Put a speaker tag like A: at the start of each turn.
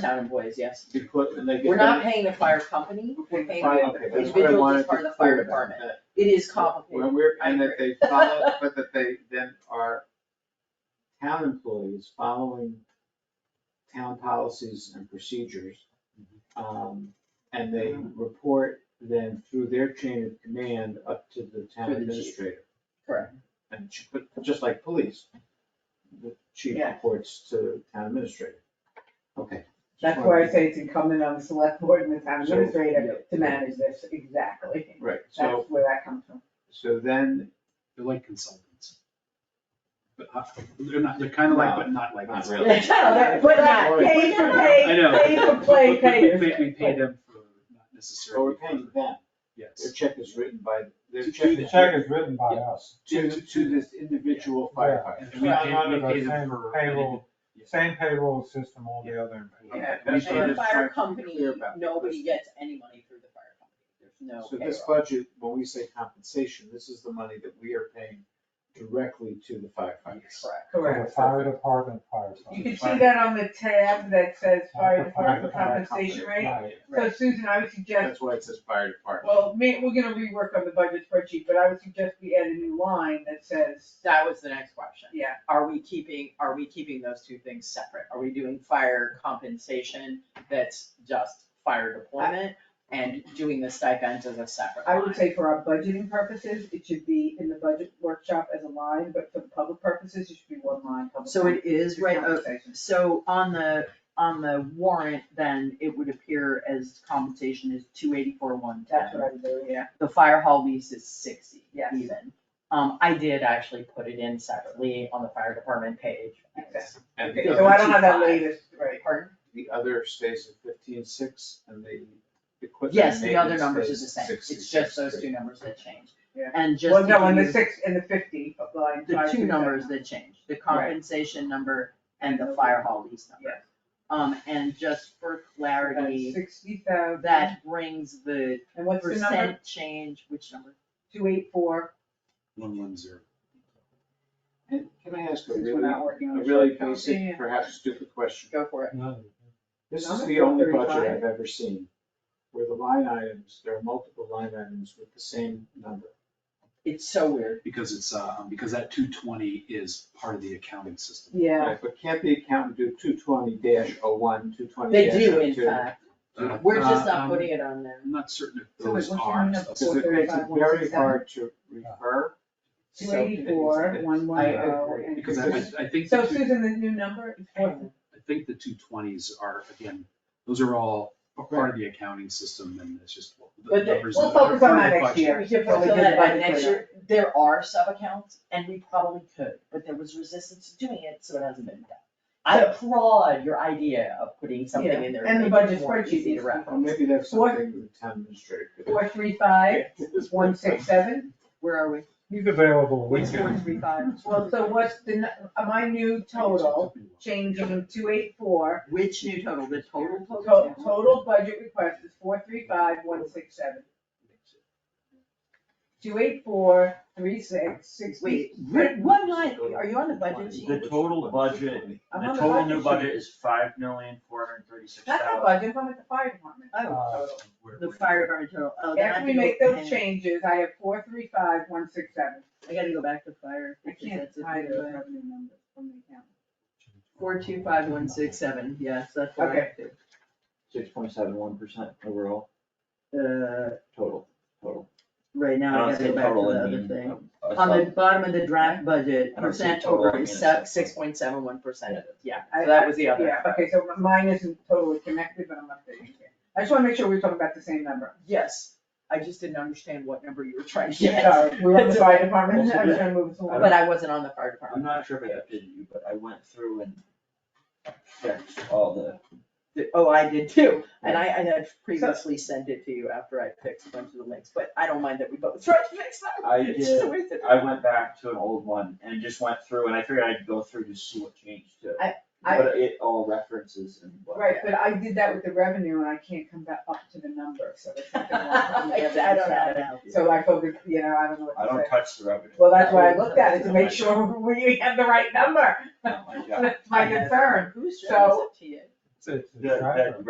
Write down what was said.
A: town employees, yes.
B: You put, and they get.
A: We're not paying the fire company, we're paying,
B: Fine, okay, that's what I
A: individuals
B: wanted
A: as part
B: to
A: of the fire
B: clear about
A: department.
B: that.
A: it is complicated.
B: When we're,
A: I
B: and that they follow, but that they then are town employees following town policies and procedures. Um, and they report then through their chain of command up to the town
A: To the chief.
B: administrator.
A: Correct.
B: And ch- but just like police, the chief
C: Yeah.
B: reports to town administrator. Okay.
C: That's why I say it's incumbent on the select board and the town
B: So,
C: administrator to manage this, exactly.
B: Right, so,
C: That's where that comes from.
B: so then,
D: They're like consultants. But, uh, they're not, they're kind of like, but not like.
B: No, not
D: consultants.
B: really.
C: Yeah, But not pay for
D: I
C: pay,
D: know.
C: pay for play,
D: But we-
C: pay.
D: We pay, we pay them for not
B: so
D: necessarily.
B: we're paying Oh, them, their
D: Yes.
B: check is written by, their
D: To-
B: check
E: The check is written by us,
B: to, to this individual firefighter.
D: And we
E: Not
D: pay,
E: under
D: we
E: the
D: pay
E: same
D: them for.
E: payroll.
D: Yeah.
E: same payroll system all the other employees.
C: Yeah.
B: That's what
A: And
B: I'm
A: the fire
B: trying to be
A: company,
B: clear about.
A: nobody gets any money through the fire company,
B: So
A: there's
B: this
A: no payroll.
B: budget, when we say compensation, this is the money that we are paying directly to the firefighters.
A: Correct.
E: For the
C: Correct.
E: fire department, fire
C: You
E: department.
C: can see that on the tab that says fire
E: Fire
C: department
E: department.
C: compensation rate.
E: Right.
C: So Susan, I would suggest,
B: That's why it says fire department.
C: well, may, we're gonna rework on the budget spreadsheet, but I would suggest we add a new line that says,
A: That was the next question.
C: Yeah.
A: Are we keeping, are we keeping those two things separate? Are we doing fire compensation that's just fire deployment and doing the stipends as a separate
C: I
A: line?
C: would say for our budgeting purposes, it should be in the budget workshop as a line, but for public purposes, it should be one line. public
A: So it is right, uh,
C: compensation.
A: so on the, on the warrant, then it would appear as compensation is two eighty-four, one
C: That's
A: ten.
C: what I would do, yeah.
A: The fire hall lease is sixty
C: Yes.
A: even. Um, I did actually put it in separately on the fire department page.
C: Exactly.
B: And
C: Okay,
B: the
C: so I
B: other,
C: don't have that
A: 125.
C: latest, right.
A: Pardon?
B: the other stays at fifteen six and the equipment
A: Yes, the other
B: maintenance
A: numbers is the
B: stays
A: same,
B: at
A: it's just
B: 66.
A: those two numbers that change.
C: Yeah.
A: And just
C: Well,
A: to
C: no, and
A: give
C: the
A: you
C: six and the fifty of line five.
A: the two
C: through
A: numbers
C: seven.
A: that change, the
C: Right.
A: compensation number and the fire hall lease number.
C: Yes.
A: Um, and just for clarity,
C: Sixty thousand.
A: that brings the
C: And what's the number?
A: percent change, which number?
C: Two eight four,
D: One one zero.
B: And Can I ask a
C: since we're
B: really,
C: not working
B: a
C: on. the
B: really
C: short term. Yeah.
B: basic, perhaps stupid question?
A: Go for it.
E: No.
B: This is
C: Not
B: the only budget
C: 35.
B: I've ever seen where the line items, there are multiple line items with the same number.
A: It's so weird.
D: Because it's, uh, because that two twenty is part of the accounting system.
C: Yeah,
B: Right, But can't the accountant do two twenty dash oh one, two twenty
A: They
B: dash
A: do,
B: oh
A: in
B: two?
A: fact.
D: Uh,
A: We're just
D: um,
A: not putting it on there.
D: I'm not certain if
C: So wait,
D: those
C: what's your
D: are.
C: number?
B: Because it makes it
C: 435,
B: very
C: 167.
B: hard to refer.
C: two eighty-four, one one
A: I
C: oh.
B: agree,
C: and
D: Because I,
C: three.
D: I I think, the
C: So
D: two-
C: Susan, the new number is four.
D: I think the two twenties are, again, those are all a part of the accounting system and it's just the
A: But they-
D: numbers.
C: we'll
D: that are
C: focus
D: part
C: on
D: of
C: that
D: the
C: next
D: budget.
C: year.
A: We can
C: So we
A: fulfill
C: did
A: that by
C: budget
A: next
C: for
A: year. There are sub-accounts and we probably could, but there was resistance to doing it, so it hasn't been done. I applaud your idea of putting something in there.
C: and
A: to
C: the
A: make it
C: budget
A: more
C: spreadsheet
A: easy to
C: is-
A: reference.
B: Or maybe that's
C: What?
B: something the town administrator could.
C: Four three five, one six seven.
A: Where are we?
E: He's available, we
A: It's four,
E: can,
A: three, five.
C: Well, so what's the, nu- uh, my new total, changing from two eight four,
A: Which new total, the total total? Oh,
C: total, total budget request is four three five, one six seven. Two eight four, three six, six.
A: Wait, Rick, one line, are you on the budget sheet?
F: The total budget,
C: I'm
F: the
C: on the
F: total new
C: budget
F: budget is five million, four hundred and thirty-six
C: That's not
F: thousand.
C: budget, I'm at the fire department.
E: uh,
A: Oh, The fire department total, oh, then I
C: After
A: have
C: we
A: to go-
C: make those
A: hang on.
C: changes, I have four three five, one six seven.
A: I gotta go back to fire.
C: I can't hide those revenue numbers from the account.
A: Four, two, five, one, six, seven, yes, that's what I
C: Okay.
A: have to.
F: Six point seven one percent overall
A: Uh,
F: total, total.
A: right
F: I
A: now, I
F: don't
A: gotta
F: say
A: go back to
F: total, I
A: the other
F: mean, uh,
A: thing.
F: a
A: On the
F: sub-
A: bottom of the draft budget,
F: I don't see
A: percent
F: total, I
A: over
F: mean,
A: is
F: it's
A: sub,
F: like-
A: six point seven one percent of it, yeah,
C: I-
A: so that was the other.
C: Yeah, okay, so minus and total is connected, but I'm not figuring it. I just wanna make sure we're talking about the same number.
A: Yes, I just didn't understand what number you were trying to get,
C: Sorry, we're on the fire department,
F: That's
C: I
F: okay.
C: was trying to move this along.
A: but I wasn't on the fire
F: I'm
A: department.
F: not sure if I updated you, but I went through and checked all the,
A: The- Oh, I did too, and I, I had previously sent it to you after I fixed a bunch of the links, but I don't mind that we both tried to fix them.
F: I
A: It's just a
F: did,
A: waste of
F: I
A: time.
F: went back to an old one and just went through and I figured I'd go through to see what changed to.
C: I- I-
F: But it all references and what.
C: Right, but I did that with the revenue and I can't come back up to the number, so there's something wrong. with the
A: I don't know.
C: revenue. So I focus, you know, I don't know what
F: I
C: to
F: don't
C: say.
F: touch the revenue.
C: Well, that's why I looked at it, to make sure we have the right number.
F: Not "Oh my job.
C: That's my concern.
A: Who's
C: So-
A: to you?
E: it's a
F: The- the
E: tracker.